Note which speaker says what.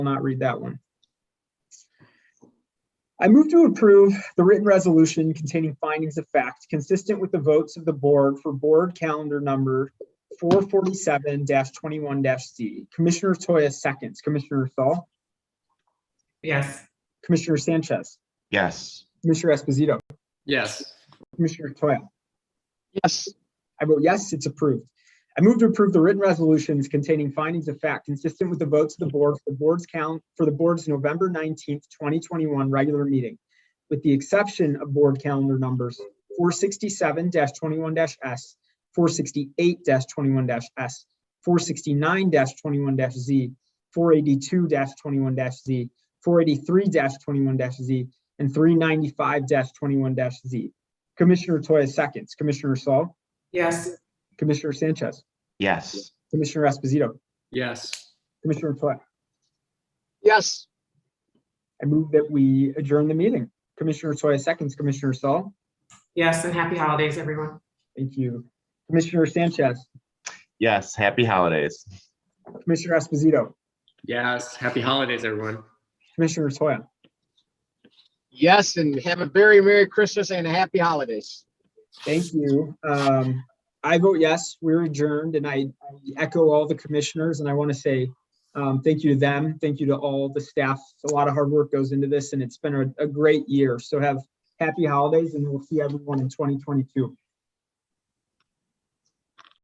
Speaker 1: will not read that one. I move to approve the written resolution containing findings of fact consistent with the votes of the board for board calendar number four forty-seven twenty-one C. Commissioner Toya seconds, Commissioner Saul,
Speaker 2: Yes.
Speaker 1: Commissioner Sanchez,
Speaker 3: Yes.
Speaker 1: Commissioner Esposito,
Speaker 4: Yes.
Speaker 1: Commissioner Toya.
Speaker 4: Yes.
Speaker 1: I vote yes, it's approved. I move to approve the written resolutions containing findings of fact consistent with the votes of the board for the board's count for the board's November nineteenth, twenty twenty-one regular meeting, with the exception of board calendar numbers four sixty-seven twenty-one S, four sixty-eight twenty-one S, four sixty-nine twenty-one Z, four eighty-two twenty-one Z, four eighty-three twenty-one Z, and three ninety-five twenty-one Z. Commissioner Toya seconds, Commissioner Saul.
Speaker 2: Yes.
Speaker 1: Commissioner Sanchez,
Speaker 3: Yes.
Speaker 1: Commissioner Esposito,
Speaker 4: Yes.
Speaker 1: Commissioner Toya.
Speaker 4: Yes.
Speaker 1: I move that we adjourn the meeting. Commissioner Toya seconds, Commissioner Saul.
Speaker 2: Yes, and happy holidays, everyone.
Speaker 1: Thank you. Commissioner Sanchez,
Speaker 3: Yes. Happy holidays.
Speaker 1: Commissioner Esposito,
Speaker 4: Yes. Happy holidays, everyone.
Speaker 1: Commissioner Toya.
Speaker 5: Yes, and have a very Merry Christmas and a Happy Holidays.
Speaker 1: Thank you. Um, I vote yes, we're adjourned and I I echo all the commissioners and I want to say um, thank you to them. Thank you to all the staff. A lot of hard work goes into this and it's been a, a great year. So have happy holidays and we'll see everyone in 2022.